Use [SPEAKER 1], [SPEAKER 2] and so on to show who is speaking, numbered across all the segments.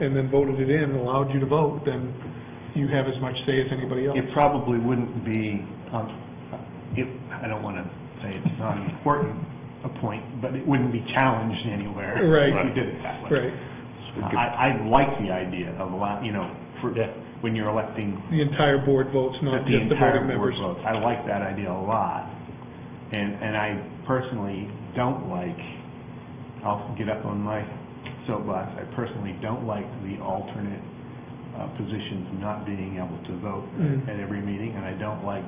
[SPEAKER 1] and then voted it in, allowed you to vote, then you have as much say as anybody else.
[SPEAKER 2] It probably wouldn't be, um, it, I don't want to say it's not an important a point, but it wouldn't be challenged anywhere.
[SPEAKER 1] Right.
[SPEAKER 2] If we did it that way.
[SPEAKER 1] Right,
[SPEAKER 2] I, I like the idea of allow, you know, for, when you're electing
[SPEAKER 1] the entire board votes,
[SPEAKER 2] that
[SPEAKER 1] not
[SPEAKER 2] the
[SPEAKER 1] just the
[SPEAKER 2] entire
[SPEAKER 1] voting
[SPEAKER 2] board
[SPEAKER 1] members.
[SPEAKER 2] votes. I like that idea a lot, and, and I personally don't like, I'll get up on my soapbox, I personally don't like the alternate uh, positions not being able to vote
[SPEAKER 1] Mm.
[SPEAKER 2] at every meeting, and I don't like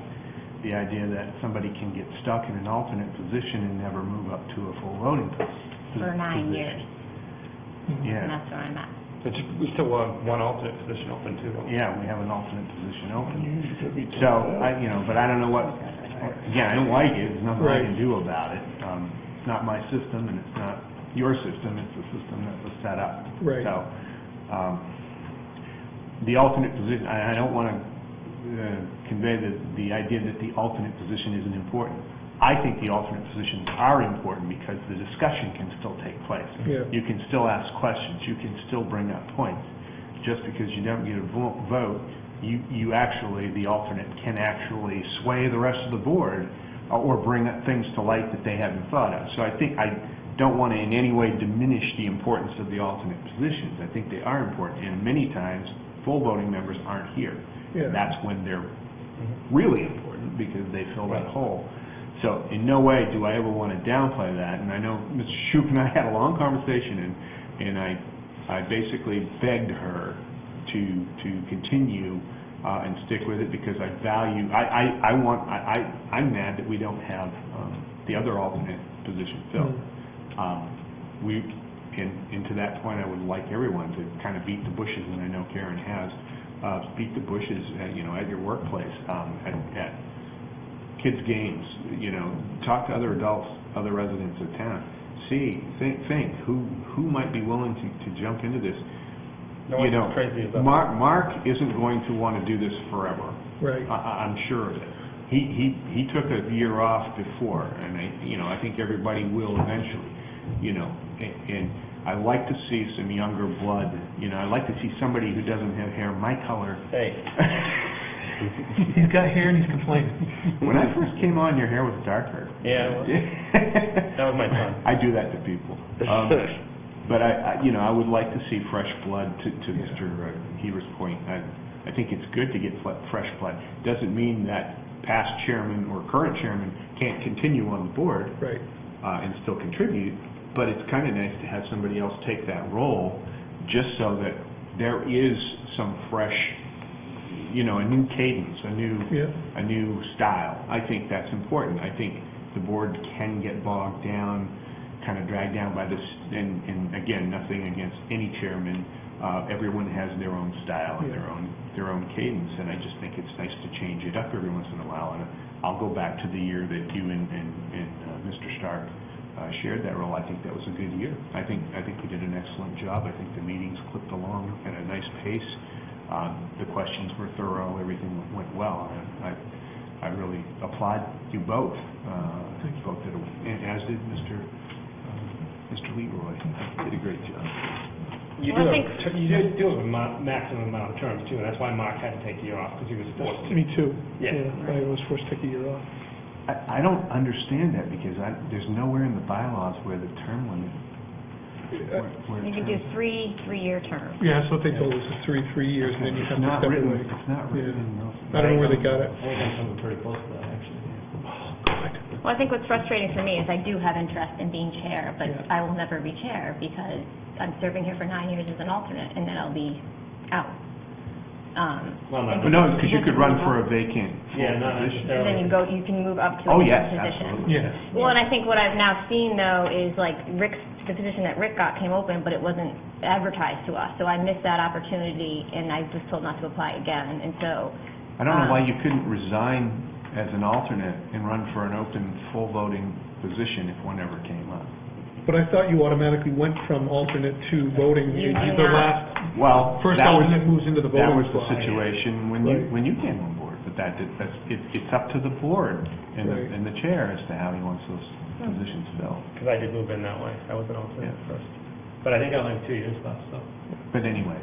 [SPEAKER 2] the idea that somebody can get stuck in an alternate position and never move up to a full voting position.
[SPEAKER 3] For nine years,
[SPEAKER 1] Mm-hmm.
[SPEAKER 3] and
[SPEAKER 2] Yeah,
[SPEAKER 3] that's where I'm at.
[SPEAKER 4] But we still want one alternate position open too, don't we?
[SPEAKER 2] yeah, we have an alternate position open. So, I, you know, but I don't know what, again, I don't like it, there's nothing I can do about it. Um, It's not my system, and it's not your system, it's the system that was set up.
[SPEAKER 1] Right.
[SPEAKER 2] So, um, the alternate position, I, I don't want to convey the, the idea that the alternate position isn't important. I think the alternate positions are important because the discussion can still take place.
[SPEAKER 1] Yeah.
[SPEAKER 2] You can still ask questions, you can still bring up points. Just because you don't get a vo- vote, you, you actually, the alternate can actually sway the rest of the board uh, or bring up things to light that they haven't thought of. So I think, I don't want to in any way diminish the importance of the alternate positions. I think they are important, and many times, full voting members aren't here.
[SPEAKER 1] Yeah.
[SPEAKER 2] And that's when they're really important, because they fill that hole. So in no way do I ever want to downplay that, and I know Mr. Shoup and I had a long conversation, and, and I, I basically begged her to, to continue uh, and stick with it, because I value, I, I, I want, I, I- I'm mad that we don't have um, the other alternate position filled.
[SPEAKER 1] Mm-hmm.
[SPEAKER 2] Um, We, and, and to that point, I would like everyone to kind of beat the bushes, and I know Karen has, uh, beat the bushes, at, you know, at your workplace, um, at, at kids' games, you know, talk to other adults, other residents of town, see, think, think, who, who might be willing to, to jump into this?
[SPEAKER 4] No
[SPEAKER 2] You
[SPEAKER 4] one's
[SPEAKER 2] know,
[SPEAKER 4] crazy about it.
[SPEAKER 2] Mark, Mark isn't going to want to do this forever.
[SPEAKER 1] Right,
[SPEAKER 2] I- I- I'm sure of it. He, he, he took a year off before, and I, you know, I think everybody will eventually, you know, a- and I like to see some younger blood, you know, I like to see somebody who doesn't have hair my color.
[SPEAKER 4] Hey,
[SPEAKER 1] he's got hair and he's complaining.
[SPEAKER 2] When I first came on, your hair was darker.
[SPEAKER 4] yeah, that was my son.
[SPEAKER 2] I do that to people. Um, But I, I- you know, I would like to see fresh blood, to to Mr. Heber's point. I I think it's good to get fle- fresh blood. Doesn't mean that past chairman or current chairman can't continue on the board
[SPEAKER 1] Right,
[SPEAKER 2] uh, and still contribute, but it's kind of nice to have somebody else take that role, just so that there is some fresh, you know, a new cadence, a new,
[SPEAKER 1] yeah,
[SPEAKER 2] a new style. I think that's important. I think the board can get bogged down, kind of dragged down by this, and, and again, nothing against any chairman. Uh, everyone has their own style and their own, their own cadence, and I just think it's nice to change it up every once in a while. And I'll go back to the year that you and, and, and uh, Mr. Stark uh, shared that role. I think that was a good year. I think, I think we did an excellent job. I think the meetings clipped along at a nice pace. Uh, The questions were thorough, everything went well. and I, I really applaud you both. Uh, you both did, a- and as did Mr. uh, Mr. Leroy. Did a great job.
[SPEAKER 4] You
[SPEAKER 3] Well,
[SPEAKER 4] do
[SPEAKER 3] I
[SPEAKER 4] have, ter- you do deal with a ma- maximum amount of terms too, and that's why Mark had to take a year off, because he was forced to.
[SPEAKER 1] me too.
[SPEAKER 4] Yeah.
[SPEAKER 1] I was forced to take a year off.
[SPEAKER 2] I, I don't understand that because I, there's nowhere in the bylaws where the term limit, where, where
[SPEAKER 3] You could do
[SPEAKER 2] terms.
[SPEAKER 3] three, three-year terms.
[SPEAKER 1] Yeah, that's what they told us, it's three, three years, and then you
[SPEAKER 2] It's
[SPEAKER 1] have to
[SPEAKER 2] not
[SPEAKER 1] step
[SPEAKER 2] written-
[SPEAKER 1] away.
[SPEAKER 2] It's not written in those.
[SPEAKER 1] I don't know where they got it.
[SPEAKER 4] I think I'm coming pretty close to that, actually.
[SPEAKER 3] Well, I think what's frustrating for me is I do have interest in being chair, but
[SPEAKER 1] Yeah.
[SPEAKER 3] I will never be chair because I'm serving here for nine years as an alternate, and then I'll be out. Um,
[SPEAKER 4] Well, not-
[SPEAKER 2] But no, because you could run for a vacant full
[SPEAKER 4] Yeah, not
[SPEAKER 2] position.
[SPEAKER 3] And then you
[SPEAKER 4] necessarily.
[SPEAKER 3] go, you can move up to a
[SPEAKER 2] Oh, yes,
[SPEAKER 3] different position.
[SPEAKER 2] absolutely.
[SPEAKER 1] Yeah,
[SPEAKER 3] Well, and I think what I've now seen though is like Rick's, the position that Rick got came open, but it wasn't advertised to us. So I missed that opportunity and I was told not to apply again. And so,
[SPEAKER 2] I don't know why
[SPEAKER 3] Um,
[SPEAKER 2] you couldn't resign as an alternate and run for an open, full-voting position if one ever came up.
[SPEAKER 1] but I thought you automatically went from alternate to voting,
[SPEAKER 3] You
[SPEAKER 1] You-
[SPEAKER 3] do
[SPEAKER 1] the
[SPEAKER 3] not.
[SPEAKER 1] last,
[SPEAKER 2] Well,
[SPEAKER 1] first
[SPEAKER 2] that
[SPEAKER 1] alternate moves into the
[SPEAKER 2] was- That
[SPEAKER 1] voting
[SPEAKER 2] was the
[SPEAKER 1] slot.
[SPEAKER 2] situation when you,
[SPEAKER 1] Right.
[SPEAKER 2] when you came on board, but that, did- that's, it- it's up to the board and the,
[SPEAKER 1] Right.
[SPEAKER 2] and the chair as to how he wants those positions filled.
[SPEAKER 4] Because I did move in that way, I was an alternate
[SPEAKER 2] Yeah.
[SPEAKER 4] first. But I think I only have two years left, so.
[SPEAKER 2] But anyway.